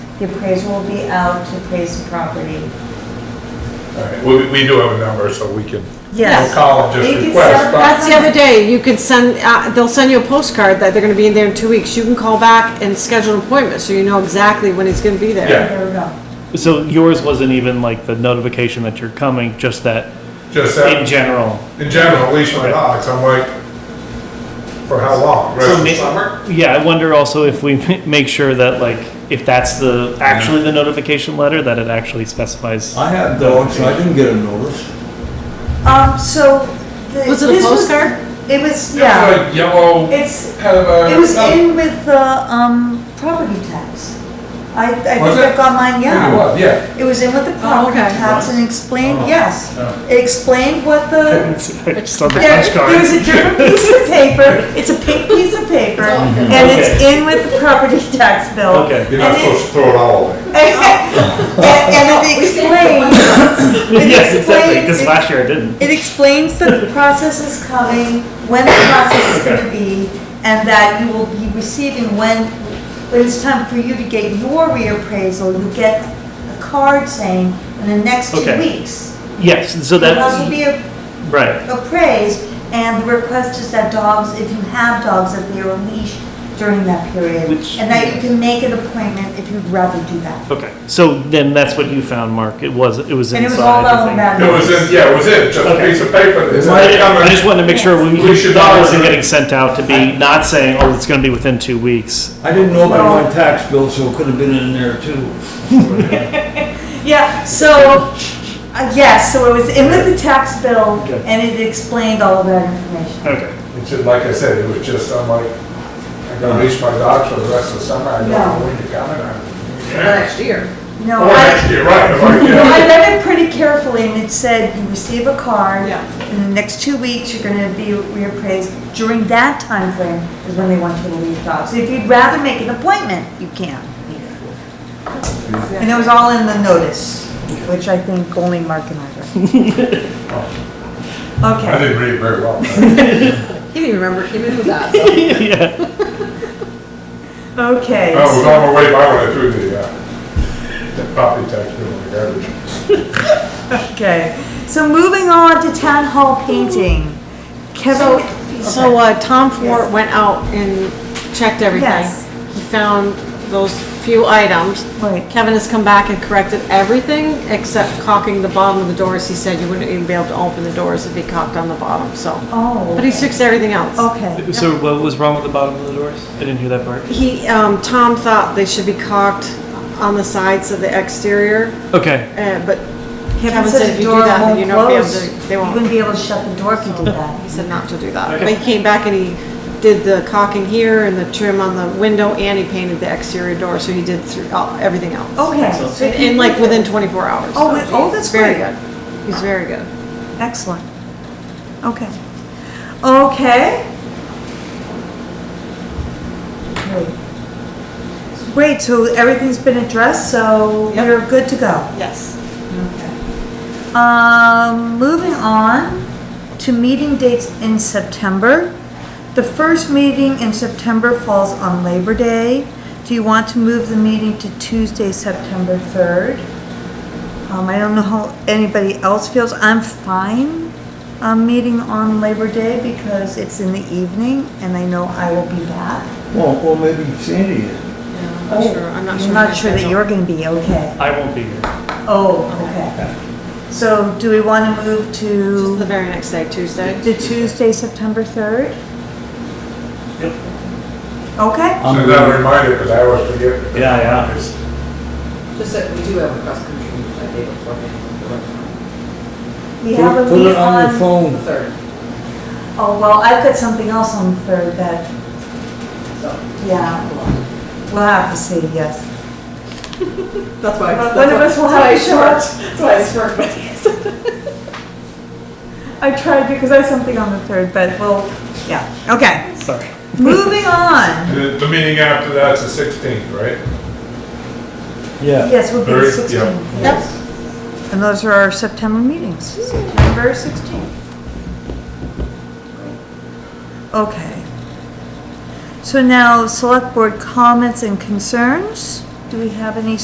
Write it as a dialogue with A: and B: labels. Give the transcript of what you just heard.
A: The appraiser will be out to appraise the property.
B: All right, We, we do have a number, so we can, we'll
A: Yes.
B: call and
A: They
B: just
A: can
B: request,
A: sell
B: but
A: that.
C: That's the other day, you could send, uh, they'll send you a postcard that they're gonna be in there in two weeks, you can call back and schedule an appointment, so you know exactly when he's gonna be there.
B: Yeah.
A: There we go.
D: So yours wasn't even like the notification that you're coming, just that
B: just
D: in
B: that,
D: general.
B: in general, at least my dogs, I'm like, for how long? Rest of
D: So
B: the
D: may-
B: summer?
D: Yeah, I wonder also if we make sure that like, if that's the, actually the notification letter, that it actually specifies.
E: I had dogs, so I didn't get a notice.
A: Um, so. the-
C: Was it a
A: this
C: postcard?
A: It was,
B: It
A: yeah.
B: was a yellow,
A: It's,
B: kind of a.
A: it was in with the, um, property tax. I, I think
B: Was
A: I
B: it?
A: got mine,
B: It
A: yeah.
B: was, yeah.
A: It was in with the property
C: Oh, okay.
A: tax and explained, yes.
B: Oh.
A: It explained what the
D: I just saw the
A: There-
D: postcard.
A: There's a different piece of paper, it's a pink piece of paper, and it's in with the property tax bill.
D: Okay.
B: You're not
A: And it-
B: supposed to throw it all away.
A: And and it explains,
D: Yes,
A: it
D: exactly, because
A: explains,
D: last year I didn't.
A: it explains that the process is coming, when the process is gonna be, and that you will be receiving when, when it's time for you to get your reappraisal, you get a card saying, in the next two
D: Okay.
A: weeks,
D: Yes, so
A: your house will
D: that,
A: be a
D: right,
A: appraised, and the request is that dogs, if you have dogs, that they are leashed during that period.
D: Which-
A: And that you can make an appointment if you'd rather do that.
D: okay. So then that's what you found, Mark. It was, it was
A: And it was
D: inside,
A: all
D: I
A: out
D: think.
A: in that.
B: It was in, yeah, it was in, just a
D: Okay.
B: piece of paper. that said,
E: Right.
B: "Come
D: I
B: in."
D: just wanted to make sure we,
B: We should
D: that wasn't
B: always-
D: getting sent out to be, not saying, oh, it's gonna be within two weeks.
E: I didn't know about my tax bill, so it could have been in there too.
A: Yeah, so, uh, yes, so it was in with the tax bill,
D: Okay.
A: and it explained all of that information.
D: Okay.
B: It's just, like I said, it was just, I'm like, I'm gonna leash my dogs for the rest of the summer, I don't
A: No.
B: know when you're coming. I'm-
F: Last year.
A: No,
B: Or next
A: I,
B: year, right, if I
A: no,
B: get-
A: I read it pretty carefully, and it said, you receive a card,
F: Yeah.
A: in the next two weeks, you're gonna be reappraised. During that time frame is when they want you to leave dogs. If you'd rather make an appointment, you can. And it was all in the notice, which I think only Mark and I read.
B: I
A: Okay,
B: didn't read it very well.
F: He didn't even remember, he knew that, so.
D: Yeah.
A: okay.
B: I was
A: so-
B: on my way by when I threw the, uh, the property tax bill in the garbage.
A: Okay, so moving on to town hall painting. Kevin,
C: So, uh, Tom Fort went out and checked everything.
A: Yes.
C: He found those few items.
A: Right.
C: Kevin has come back and corrected everything except caulking the bottom of the doors. He said you wouldn't even be able to open the doors if he caulked on the bottom, so.
A: oh.
C: But he's fixed everything else.
A: Okay,
D: So what was wrong with the bottom of the doors? I didn't hear that part.
C: He, um, Tom thought they should be caulked on the sides of the exterior,
D: Okay,
C: uh, but
A: Kevin
C: Kevin
A: said
C: said if
A: the
C: you
A: door
C: do that, then
A: won't
C: you're not gonna be
A: close.
C: able to, they
A: You
C: won't.
A: wouldn't be able to shut the door if you did that.
C: He said not to do that.
D: Okay.
C: But he came back and he did the caulking here and the trim on the window and he painted the exterior door, so he did through, all- everything else.
A: Okay. Oh, so
C: In, in like within twenty-four hours.
A: Oh,
C: so
A: with- oh, that's
C: Very
A: great.
C: good. He's very good.
A: Excellent. Okay. Okay. Great. Great, so everything's been addressed, so
C: Yep.
A: we're good to go.
C: Yes.
A: Um, moving on to meeting dates in September. The first meeting in September falls on Labor Day. Do you want to move the meeting to Tuesday, September 3rd? Um, I don't know how anybody else feels. I'm fine, um, meeting on Labor Day because it's in the evening and I know I will be back.
E: Well, well, maybe Sandy is.
C: I'm not Oh, sure, I'm not sure.
A: I'm
C: of my
A: not sure that
C: schedule.
A: you're gonna be okay.
D: I won't be here.
A: Oh, okay. So do we want to move to?
C: Just the very next day, Tuesday.
A: The Tuesday, September 3rd?
D: Yep.
A: Okay,
B: So that reminded, because I always forget.
D: Yeah, yeah.
B: It's-
F: Just that we do have a cross country meeting that day before, the
A: we have a
E: Put
A: meeting
E: it on your
A: on,
F: the
E: phone.
F: third,
A: oh, well, I've got something else on the 3rd that
F: so.
A: Yeah. we'll have to see, yes.
F: That's why.
A: One of
F: that's
A: us
F: why-
A: will
F: that's why
A: have
F: I
A: a short-
F: smirked. That's why I smirked, but yes.
A: I tried because I have something on the 3rd, but well, yeah, okay.
D: Sorry.
A: Moving on.
B: The the meeting after that's the sixteenth, right?
E: Yeah.
A: Yes, we'll be the
B: Third, yeah.
A: 16th. Yep. And those are our September meetings, September 16th. Okay. So now, select board comments and concerns. Do we have any